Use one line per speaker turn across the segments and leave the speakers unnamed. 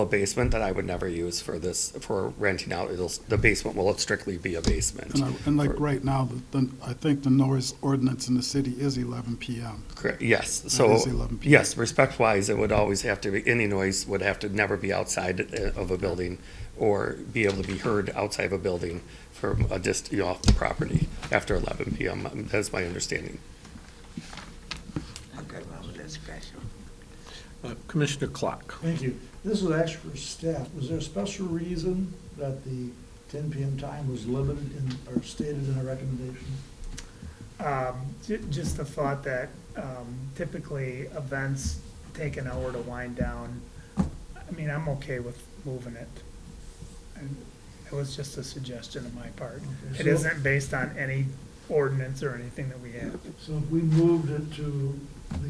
a basement that I would never use for this, for renting out. It'll, the basement will strictly be a basement.
And I- And like right now, the- the- I think the noise ordinance in the city is 11 PM.
Correct, yes,
is
so,
11 p.m.
yes, respect-wise, it would always have to be, any noise would have to never be outside uh, of a building or be able to be heard outside of a building from a dist, you know, off the property after eleven PM. Um, That's my understanding.
I'm good with that special.
Uh, Commissioner Clark.
Thank you. This was actually for staff. Was there a special reason that the ten PM time was limited in, or stated in our recommendation?
Um, ju- just the thought that, um, typically events take an hour to wind down. I mean, I'm okay with moving it. And it was just a suggestion on my part. It
So-
isn't based on any ordinance or anything that we have.
So if we moved it to the,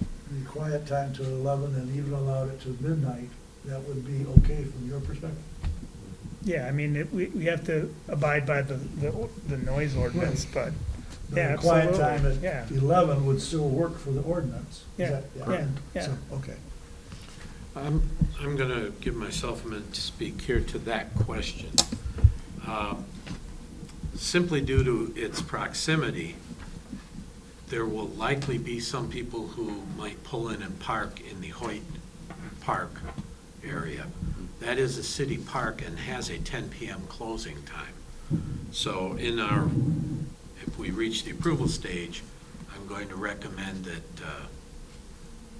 the quiet time to eleven and even allowed it to midnight, that would be okay from your perspective?
Yeah, I mean, it, we, we have to abide by the, the, o- the noise ordinance, but,
The
Yeah,
Quiet time
absolutely.
at eleven would still work for the ordinance. Is
Yeah,
that
yeah,
correct?
yeah.
So, Okay.
I'm, I'm going to give myself a minute to speak here to that question. Um, Simply due to its proximity, there will likely be some people who might pull in and park in the Hoyt Park area. That is a city park and has a 10 PM closing time. So in our, if we reach the approval stage, I'm going to recommend that uh,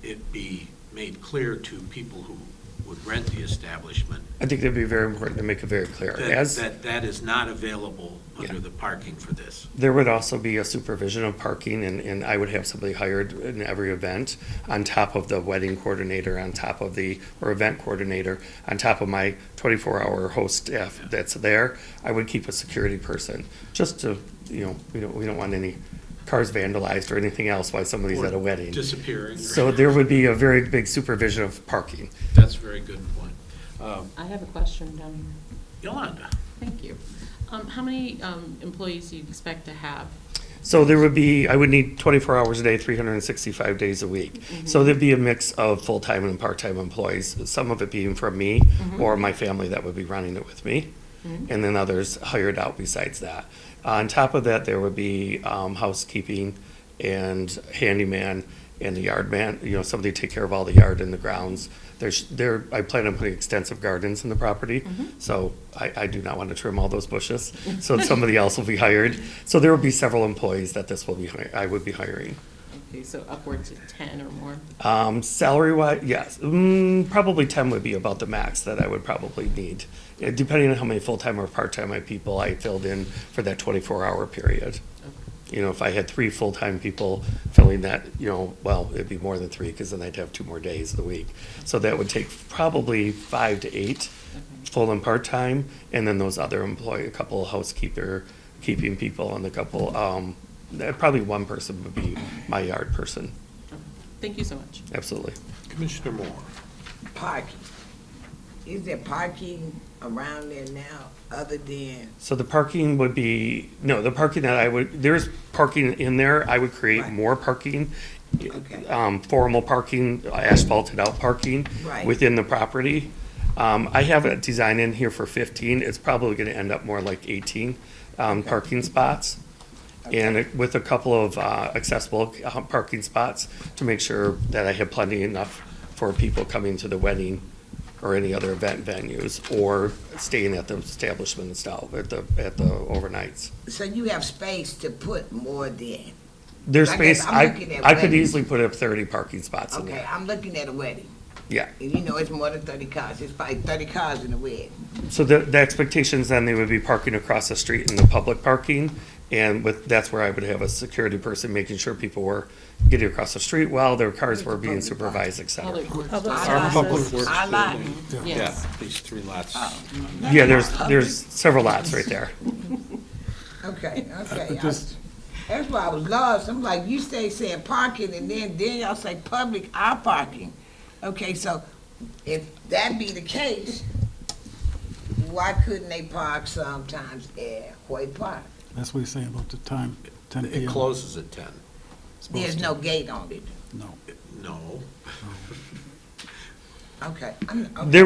it be made clear to people who would rent the establishment
I think that'd be very important to make it very clear.
that,
As,
that that is not available under
Yeah.
the parking for this.
there would also be a supervision of parking and, and I would have somebody hired in every event on top of the wedding coordinator, on top of the, or event coordinator, on top of my twenty-four hour host staff that's there. I would keep a security person, just to, you know, we don't, we don't want any cars vandalized or anything else while somebody's
Or
at a wedding.
Disappearing.
So there would be a very big supervision of parking.
That's a very good point. Um,
I have a question down here.
Yolanda,
Thank you. Um, how many, um, employees do you expect to have?
So there would be, I would need 24 hours a day, 365 days a week. So there'd be a mix of full-time and part-time employees, some of it being from me or my family that would be running it with me, and then others hired out besides that. On top of that, there would be um, housekeeping and handyman and the yard man, you know, somebody take care of all the yard and the grounds. There's, there, I plan on putting extensive gardens in the property, so I, I do not want to trim all those bushes. So somebody else will be hired. So there will be several employees that this will be, hi- I would be hiring.
Okay, so upwards of ten or more.
Um, salary wise, yes, mm, probably ten would be about the max that I would probably need. Uh, Depending on how many full-time or part-time my people I filled in for that twenty-four hour period. You know, if I had three full-time people filling that, you know, well, it'd be more than three, because then I'd have two more days of the week. So that would take probably five to eight, full and part-time, and then those other employee, a couple housekeeper, keeping people, and a couple, um, that- probably one person would be my yard person,
Thank you so much.
absolutely.
Commissioner Moore.
Parking. Is there parking around there now other than,
So the parking would be, no, the parking that I would, there's parking in there, I would create
Right.
more parking.
Okay.
Um, formal parking, asphalted out parking.
Right.
Within the property. Um, I have a design in here for fifteen, it's probably gonna end up more like eighteen, um, parking spots. And with a couple of, uh, accessible, uh, parking spots to make sure that I have plenty enough for people coming to the wedding or any other event venues, or staying at the establishment itself, at the, at the overnights.
so you have space to put more than?
There's
I guess
space,
I'm
I,
looking at
I could
weddings.
easily put up thirty parking spots in
Okay,
there.
I'm looking at a wedding.
Yeah,
And you know, it's more than thirty cars. It's probably thirty cars in a wedding.
so the, the expectations then, they would be parking across the street in the public parking, and with, that's where I would have a security person making sure people were getting across the street while their cars were being supervised, et cetera.
Public works.
Our
Our Public Works
Our lot.
building.
Yes.
Yeah, These three lots.
Yeah, there's, there's several lots right there.
Okay, okay.
But just-
I- That's why I was lost. I'm like, you stay saying parking and then, then y'all say public, our parking. Okay, so if that be the case, why couldn't they park sometimes at Hoyt Park?
That's what he's saying about the time, 10 PM.
It closes at 10.
There's no gate on it.
No.
No.
Okay. I'm- okay.
There